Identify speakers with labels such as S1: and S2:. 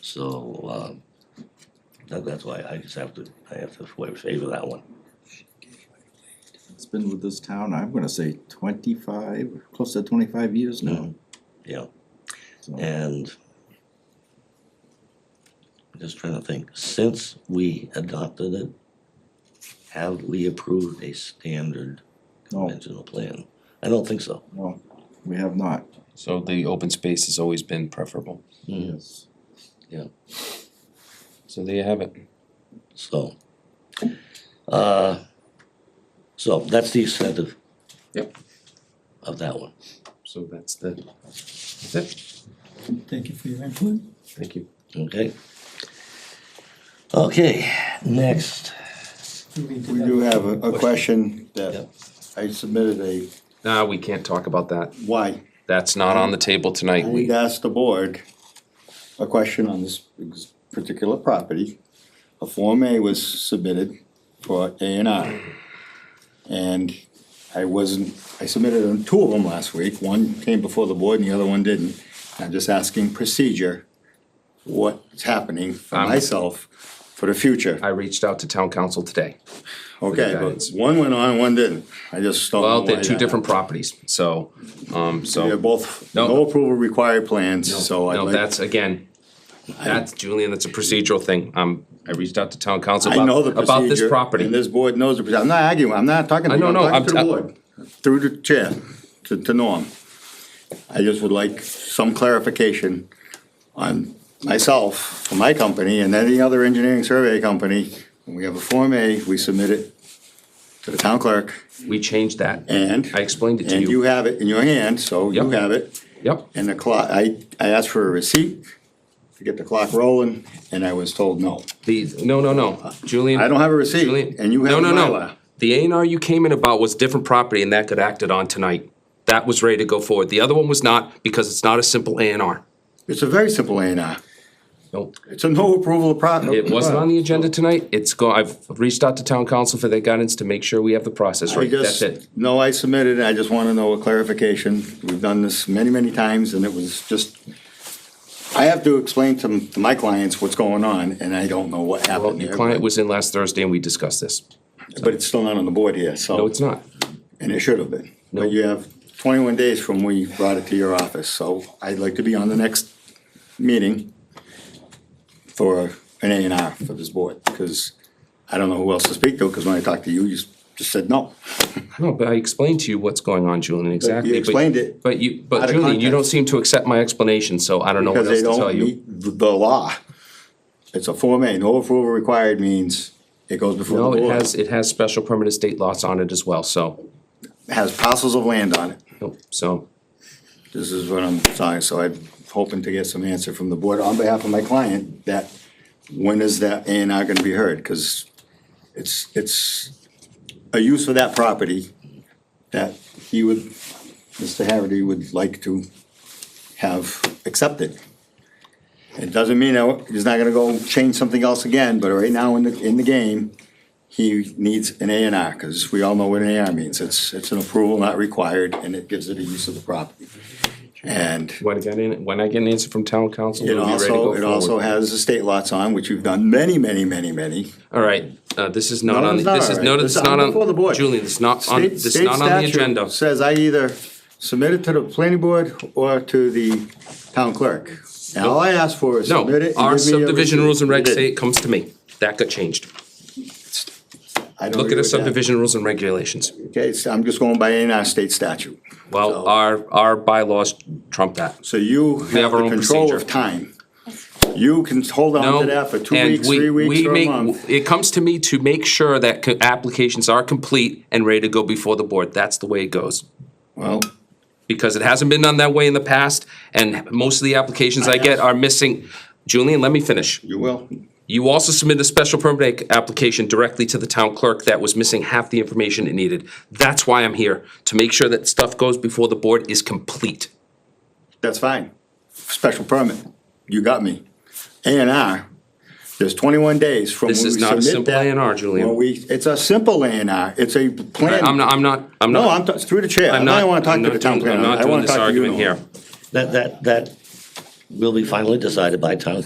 S1: So, um, that, that's why I just have to, I have to favor that one.
S2: It's been with this town, I'm gonna say twenty-five, close to twenty-five years now.
S1: Mm-hmm. Yeah,
S2: So,
S1: and I'm just trying to think, since we adopted it, have we approved a standard
S2: No,
S1: conventional plan? I don't think so.
S2: no, we have not,
S3: So the open space has always been preferable.
S1: Mm-hmm.
S2: yes.
S3: So there you have it.
S1: So, uh, so that's the extent of.
S3: Yep.
S1: Of that one.
S3: So that's the, that's it.
S4: Thank you for your input.
S3: Thank you.
S1: Okay. Okay, next.
S5: We do have a, a question that
S1: Yep.
S5: I submitted a,
S3: Nah, we can't talk about that.
S5: why?
S3: That's not on the table tonight.
S5: I
S3: We,
S5: asked the board a question on this ex- particular property. A Form A was submitted for A and R. And I wasn't, I submitted two of them last week, one came before the board and the other one didn't. I'm just asking procedure, what's happening for
S3: I'm-
S5: myself for the future.
S3: I reached out to town council today.
S5: Okay, but one went on, one didn't, I just don't know
S3: Well, they're
S5: why
S3: two
S5: that
S3: different properties, so, um,
S5: They're
S3: so.
S5: both,
S3: No.
S5: no approval required plans, so I'd
S3: No,
S5: like,
S3: that's, again, that's, Julian, that's a procedural thing. Um, I reached out to town council
S5: I know the
S3: about,
S5: procedure.
S3: about this
S5: And
S3: property.
S5: this board knows the procedure, I'm not arguing, I'm not talking to
S3: I
S5: you,
S3: know,
S5: I'm
S3: no,
S5: talking to the
S3: I'm-
S5: board, through the chair, to, to Norm. I just would like some clarification on myself, for my company, and any other engineering survey company. When we have a Form A, we submit it to the town clerk,
S3: We changed that.
S5: and,
S3: I explained it to
S5: and you
S3: you.
S5: have it in your hand, so you
S3: Yep.
S5: have it.
S3: Yep,
S5: And the clock, I, I asked for a receipt to get the clock rolling, and I was told no.
S3: the, no, no, no, Julian.
S5: I don't have a
S3: Julian-
S5: receipt, and you
S3: No,
S5: have a
S3: no, no.
S5: Mylar.
S3: The A and R you came in about was different property and that got acted on tonight. That was ready to go forward. The other one was not because it's not a simple A and R.
S5: It's a very simple A and R.
S3: Nope.
S5: It's a no approval of product.
S3: It wasn't on the agenda tonight. It's go, I've reached out to town council for their guidance to make sure we have the process
S5: I
S3: right. That's
S5: just,
S3: it.
S5: no, I submitted, I just wanna know a clarification. We've done this many, many times, and it was just, I have to explain to m- to my clients what's going on, and I don't know what
S3: Well,
S5: happened
S3: your
S5: there.
S3: client was in last Thursday and we discussed this.
S5: But it's still not on the board here,
S3: No,
S5: so,
S3: it's not.
S5: and it should have been.
S3: No.
S5: But you have twenty-one days from we brought it to your office, so I'd like to be on the next meeting for an A and R for this board, because I don't know who else to speak to, because when I talked to you, you s- just said no.
S3: No, but I explained to you what's going on, Julian, exactly.
S5: explained it
S3: But you,
S5: out
S3: but
S5: of
S3: Julian, you don't
S5: context.
S3: seem to accept my explanation, so I don't know what
S5: Because
S3: else
S5: they
S3: to tell
S5: don't
S3: you.
S5: meet th- the law. It's a Form A, no approval required means it goes before the
S3: No,
S5: board.
S3: it has, it has special permanent state lots on it as well, so,
S5: Has parcels of land on it.
S3: nope, so.
S5: This is what I'm saying, so I'm hoping to get some answer from the board on behalf of my client that when is that A and R gonna be heard? Cause it's, it's a use of that property that he would, Mr. Harity would like to have accepted. It doesn't mean that he's not gonna go change something else again, but right now in the, in the game, he needs an A and R, cause we all know what an A and R means. It's, it's an approval not required and it gives it a use of the property. And
S3: When I get in, when I get an answer from town council,
S5: it
S3: we'll be ready to
S5: also, it
S3: go
S5: also
S3: forward.
S5: has estate lots on, which you've done many, many, many, many.
S3: All right, uh, this is not
S5: No,
S3: on,
S5: it's
S3: the-
S5: not
S3: this
S5: all
S3: is,
S5: right.
S3: no, this
S5: This
S3: is
S5: is
S3: not
S5: on
S3: on,
S5: before the board.
S3: Julian, this is not on,
S5: State-
S3: this is
S5: state
S3: not on the
S5: statute
S3: agenda.
S5: Says I either submit it to the planning board or to the town clerk. And all I ask for is submit
S3: No,
S5: it.
S3: our
S5: and give me a
S3: subdivision
S5: receipt.
S3: rules and
S5: You
S3: regs
S5: did.
S3: say it comes to me. That got changed.
S5: I don't
S3: Look at
S5: agree
S3: the
S5: with that.
S3: subdivision rules and regulations.
S5: Okay, so I'm just going by any our state statute.
S3: Well,
S5: So-
S3: our, our bylaws trump that.
S5: So you have
S3: have our
S5: the
S3: own
S5: control
S3: procedure.
S5: of time. You can hold on
S3: No,
S5: to that for two
S3: and
S5: weeks,
S3: we-
S5: three weeks,
S3: we
S5: or a
S3: make-
S5: month.
S3: It comes to me to make sure that co- applications are complete and ready to go before the board. That's the way it goes.
S5: Well,
S3: because it hasn't been done that way in the past, and most of the applications I get are missing. Julian, let me finish.
S5: you will.
S3: You also submitted a special permit ac- application directly to the town clerk that was missing half the information it needed. That's why I'm here, to make sure that stuff goes before the board is complete.
S5: That's fine. Special permit, you got me. A and R, there's twenty-one days from when
S3: This
S5: we
S3: is not a
S5: submit
S3: simple
S5: that.
S3: A and R,
S5: When
S3: Julian.
S5: we, it's a simple A and R, it's a plan.
S3: I'm not, I'm not, I'm
S5: No,
S3: not,
S5: I'm, t- through the chair, I
S3: I'm
S5: don't wanna
S3: not,
S5: talk
S3: I'm
S5: to the
S3: not
S5: town
S3: doing,
S5: planner,
S3: I'm
S5: I
S3: not doing
S5: wanna
S3: this
S5: talk to you.
S3: argument
S5: Norm.
S3: here.
S1: That, that, that will be finally decided by town